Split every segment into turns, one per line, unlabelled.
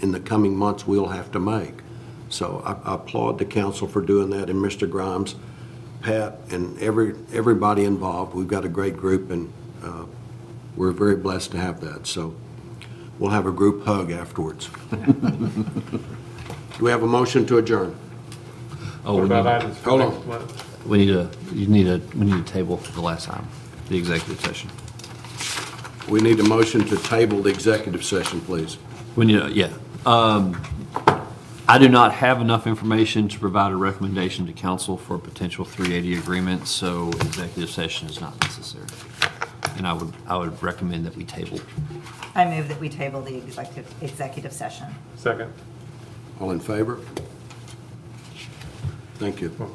in the coming months we'll have to make. So I I applaud the council for doing that, and Mr. Grimes, Pat, and every, everybody involved. We've got a great group, and uh, we're very blessed to have that. So we'll have a group hug afterwards. Do we have a motion to adjourn?
Oh,
What
we
about
need,
items for
Hold on.
next month?
we need a, you need a, we need a table for the last time, the executive session.
We need a motion to table the executive session, please.
We need, a- yeah. Um, I do not have enough information to provide a recommendation to council for a potential 380 agreement, so executive session is not necessary. And I would, I would recommend that we table.
I move that we table the executive, executive session.
Second.
All in favor? Thank you.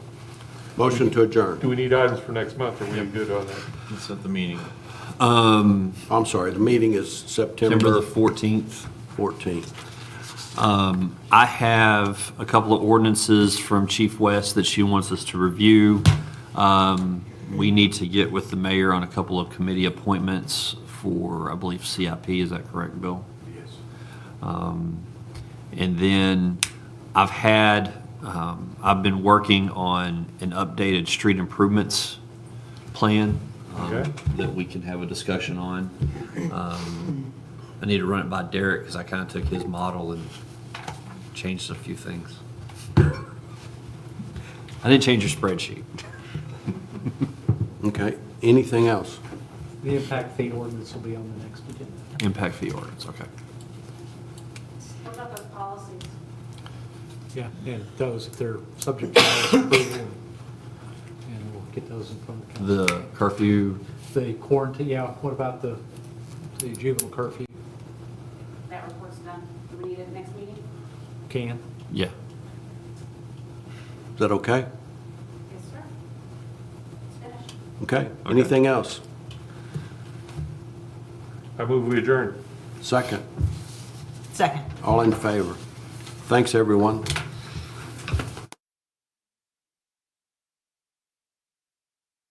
Motion to
Do
adjourn.
we need items for next month? Are we good on that?
It's at the meeting.
I'm sorry, the meeting is
September the
September
14th.
14th.
I have a couple of ordinances from Chief West that she wants us to review. Um, We need to get with the mayor on a couple of committee appointments for, I believe, CIP, is that correct, Bill? Yes. And then I've had, um, I've been working on an updated street improvements plan um,
Okay.
that we can have a discussion on. Um, I need to run it by Derek because I kind of took his model and changed a few things. I didn't change your spreadsheet.
Okay, anything else?
The impact fee ordinance will be on the next agenda.
Impact fee ordinance, okay.
What about those policies?
Yeah, and those, if they're subject to our approval, and we'll get those in front of council.
The curfew,
The quarantine, yeah, what about the, the juvenile curfew?
That report's done. Do we need it at the next meeting?
Can?
yeah.
Is that okay?
Yes, sir. It's finished.
Okay, anything else?
I move we adjourn.
Second,
Second.
all in favor? Thanks, everyone.